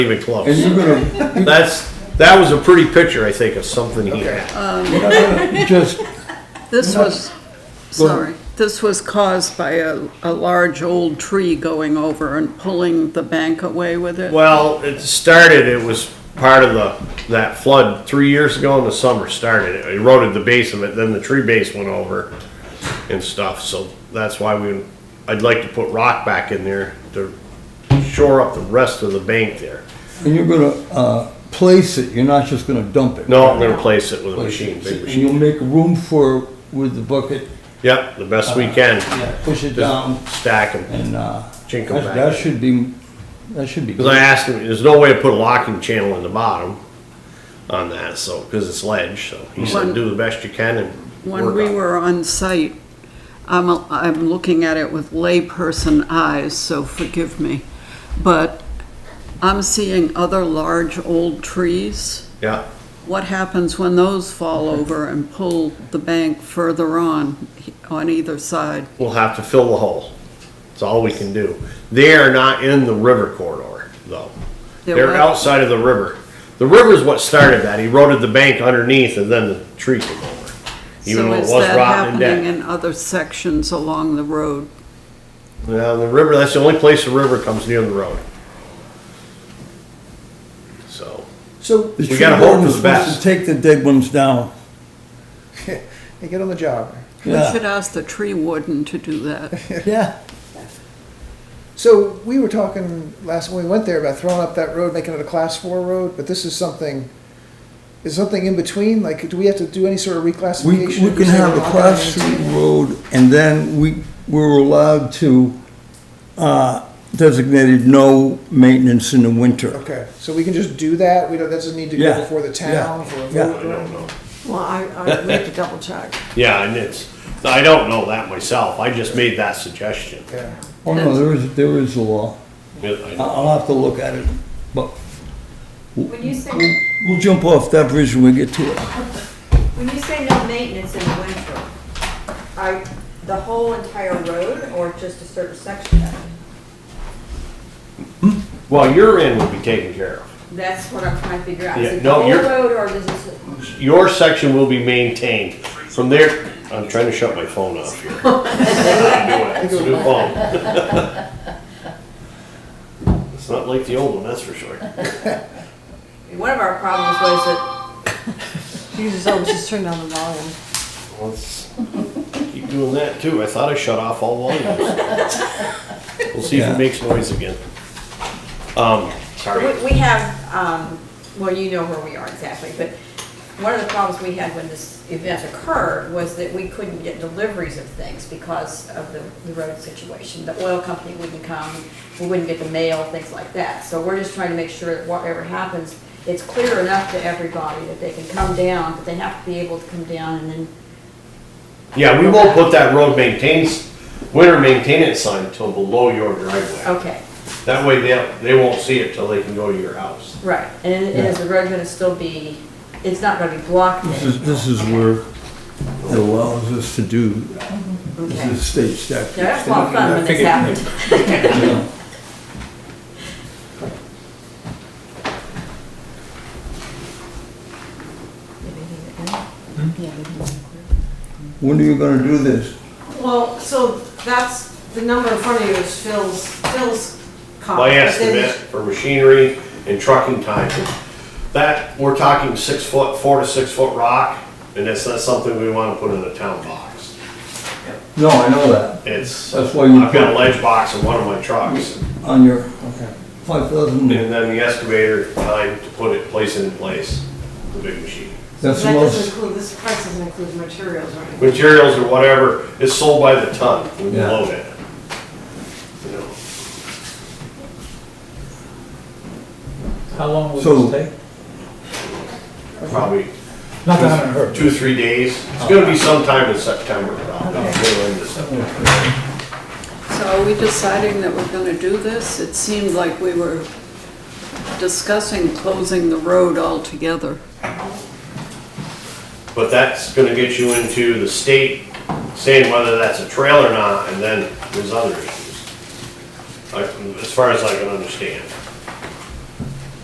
even And close. you're gonna, That's, that was a pretty picture, I think, of something here. you're not gonna just, This was, Go ahead. sorry, this was caused by a, a large old tree going over and pulling the bank away with it. Well, it started, it was part of the, that flood three years ago in the summer started. It eroded the base of it, then the tree base went over and stuff, so that's why we, I'd like to put rock back in there to shore up the rest of the bank there. and you're gonna, uh, place it, you're not just gonna dump it. No, I'm gonna replace it with a Place machine, it. big And machine. you'll make room for, with the bucket, Yep, the best we can, Uh, yeah, push it down just stack them, and, uh, chink them that, that back. should be, that should be. Because I asked him, there's no way to put a locking channel in the bottom on that, so, because it's ledge, so he said, When- do the best you can and When work we on it. were on site, I'm, a- I'm looking at it with layperson eyes, so forgive me. But I'm seeing other large old trees. Yeah, What happens when those fall over and pull the bank further on, on either side? we'll have to fill the hole. It's all we can do. They are not in the river corridor, though. They're They're what? outside of the river. The river's what started that. He eroded the bank underneath and then the tree came over. Even though it was rotten and So is that happening dead. in other sections along the road? Now, the river, that's the only place the river comes near the road. So, So The we tree gotta hope for warden's the best. supposed to Take the dead ones down, they get on the job. We Yeah. should ask the tree warden to do that. yeah. So we were talking last when we went there about throwing up that road, making it a class four road, but this is something. Is something in between? Like, do we have to do any sort of We, reclassification? we can have a cross street road and then we, we're allowed to, uh, designated no maintenance in the winter. Okay, so we can just do that. We don't. That doesn't need to Yeah, go before the yeah, town for a yeah. I vote. or- don't know. Well, I, I need to double check. Yeah, and it's, I don't know that myself. I just made that suggestion. Yeah. Oh, no, there is, there is a law. I- Yeah, I'll have to look at it, but When you say, we'll, we'll jump off that bridge when we get to it. when you say no maintenance in the winter, are the whole entire road or just a certain section of it? I- Well, your end would be taken care of. That's what I'm trying to figure out. Yeah, Is it no, the whole you're- road or is it? Your section will be maintained. From there, I'm trying to shut my phone off here. It's a new phone. It's not like the old one, that's for sure. One of our problems was that, Jesus, I was just turning down the volume. Let's keep doing that too. I thought I shut off all volumes. We'll see if Yeah. it makes noise again. Um, sorry. we, we have, um, well, you know where we are exactly, but one of the problems we had when this event occurred was that we couldn't get deliveries of things because of the, the road situation. The oil company wouldn't come, we wouldn't get the mail, things like that. So we're just trying to make sure that whatever happens, it's clear enough to everybody that they can come down, but they have to be able to come down and then Yeah, we won't put that road maintains, winter maintenance sign until below your driveway. Okay, That way they, they won't see it till they can go to your house. right, and and is the road gonna still be, it's not gonna be blocked This is, then? this is where it allows us to do, this Okay. is state statute. Yeah, that's a lot of fun when this happened. When are you gonna do this? Well, so that's, the number in front of you is Phil's, Phil's cop. My but Ah, then- estimate for machinery and trucking time, that, we're talking six foot, four to six foot rock, and that's not something we wanna put in a town box. No, I know that, It's, I've That's why you got a put- ledge box in one of my trucks, on your five thousand, and then the excavator time to put it, place it in place, the big machine. that's the That doesn't most, include, this price doesn't include materials or anything. materials or whatever is sold by the ton when you Yeah. load it. You know, How long So- will this take? Probably Not that I heard. two, three days. It's gonna be sometime in September, probably, middle end of September. So are we deciding that we're gonna do this? It seemed like we were discussing closing the road altogether. But that's gonna get you into the state saying whether that's a trail or not, and then there's other issues. I- As far as I can understand.